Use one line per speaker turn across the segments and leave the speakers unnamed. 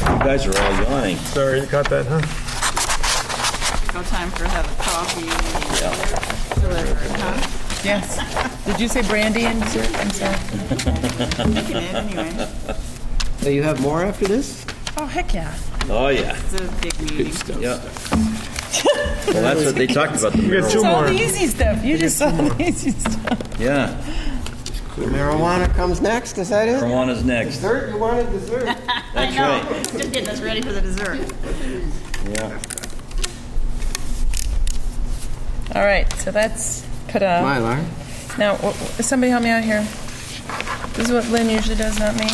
guys are all yawning.
Sorry, you caught that, huh?
No time for having coffee. Whatever, huh?
Yes. Did you say brandy and dessert? I'm sorry.
You can add anyway.
So you have more after this?
Oh, heck yeah.
Oh, yeah.
It's a big meeting.
Yeah. Well, that's what they talked about, the
We got two
marijuana.
All
more.
the easy stuff. You just saw the easy stuff.
Yeah,
Marijuana comes next, is that it?
marijuana's next.
Dessert, you wanted dessert.
That's right.
Just getting us ready for the dessert.
Yeah.
All right, so that's put up.
Mylar.
Now, wh- wh- somebody help me out here. This is what Lynn usually does, not me.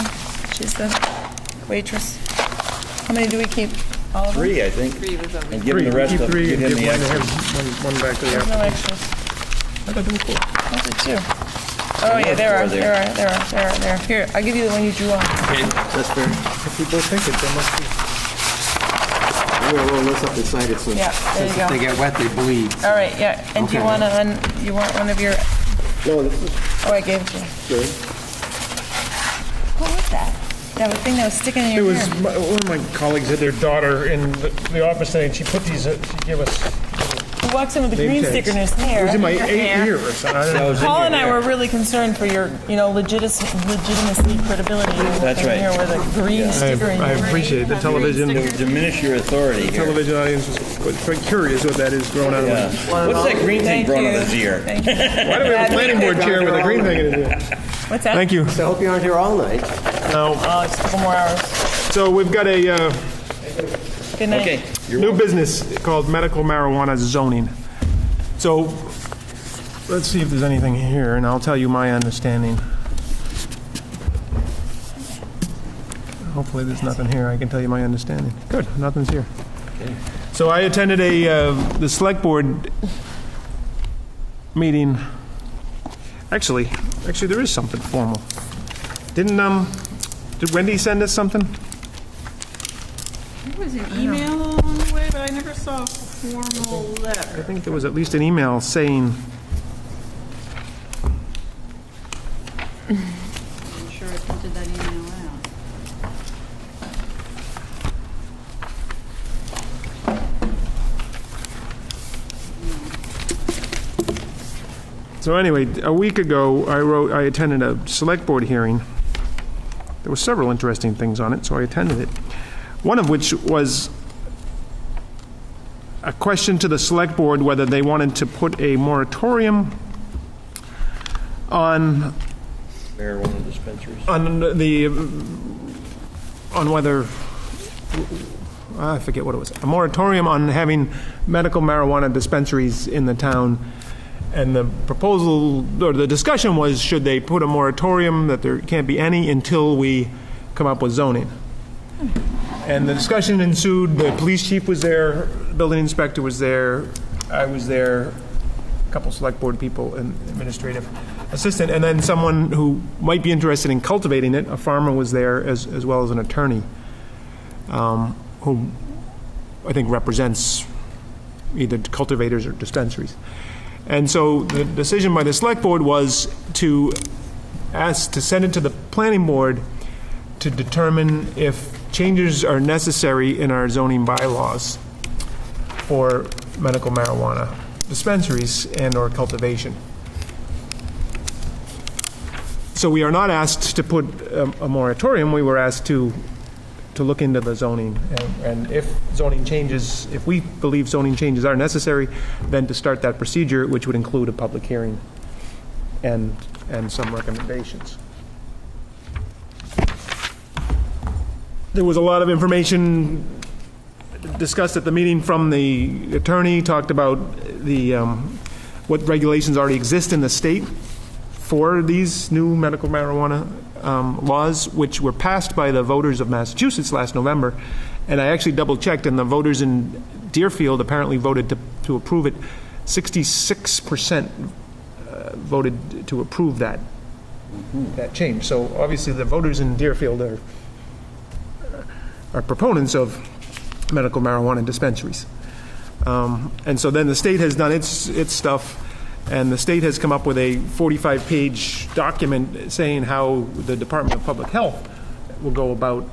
She's the waitress. How many do we keep? All of them?
Three, I think.
Three was over.
And give him the rest
Keep
of,
three
give
and
him the
give one to
extra.
him, one, one back to the
There's
applicant.
no extras.
I thought there were four.
Those are two. Oh, yeah, there
four
are, there are, there are, there are, there are. Here, I'll give you the one you drew on.
That's fair.
If we both think it, there must be.
I'm gonna roll this up inside it so
Yeah, there you
since if they
go.
get wet, they bleed.
All right, yeah, and do you want
Okay.
to, un? you want one of your, oh,
No, this is
I gave it to you.
good.
What was that? That was thing that was sticking in
It
your
was,
ear.
my- one of my colleagues had their daughter in the the office today, and she put these, uh, she gave us,
He walks in with a
Name
green
tags.
sticker in his hair.
it was in my
Your
eight
hair.
year or something. I don't know.
Paul and I were really concerned for your, you know, legitis- legitimacy, credibility. You walked
That's
in
right.
here with a green sticker in
I
your ear.
appreciate the television,
It would diminish your authority here.
television audience was quite curious what that is growing out of.
Yeah.
it.
What's that green thing
Thank
growing on
you.
his ear?
Thank you.
Why do we have a planning board chair with a green thing in it?
What's that?
Thank you.
So I hope you aren't here all night.
Now,
Oh, it's a couple more hours.
so we've got a uh,
Good night.
Okay.
new business called medical marijuana zoning. So, let's see if there's anything here, and I'll tell you my understanding. Hopefully, there's nothing here. I can tell you my understanding. Good, nothing's here. So I attended a, uh, the select board meeting. Actually, actually, there is something formal. Didn't, um, did Wendy send us something?
There was an email on the way, but I never saw a formal letter.
I think there was at least an email saying,
I'm sure I printed that email out.
So anyway, a week ago, I wrote, I attended a select board hearing. There were several interesting things on it, so I attended it. One of which was a question to the select board whether they wanted to put a moratorium on,
Marijuana dispensaries.
on the, on whether, I forget what it was, a moratorium on having medical marijuana dispensaries in the town. And the proposal, or the discussion was, should they put a moratorium that there can't be any until we come up with zoning? And the discussion ensued, the police chief was there, building inspector was there, I was there, a couple select board people and administrative assistant, and then someone who might be interested in cultivating it, a farmer was there, as, as well as an attorney, um, who I think represents either cultivators or dispensaries. And so the decision by the select board was to ask, to send it to the planning board to determine if changes are necessary in our zoning bylaws for medical marijuana dispensaries and/or cultivation. So we are not asked to put um, a moratorium, we were asked to, to look into the zoning. and- And if zoning changes, if we believe zoning changes are necessary, then to start that procedure, which would include a public hearing and, and some recommendations. There was a lot of information discussed at the meeting from the attorney, talked about the, um, what regulations already exist in the state for these new medical marijuana um, laws, which were passed by the voters of Massachusetts last November. And I actually double-checked, and the voters in Deerfield apparently voted to to approve it. 66% uh, voted to approve that, that change. So obviously, the voters in Deerfield are are proponents of medical marijuana dispensaries. Um, And so then the state has done its, its stuff, and the state has come up with a 45-page document saying how the Department of Public Health will go about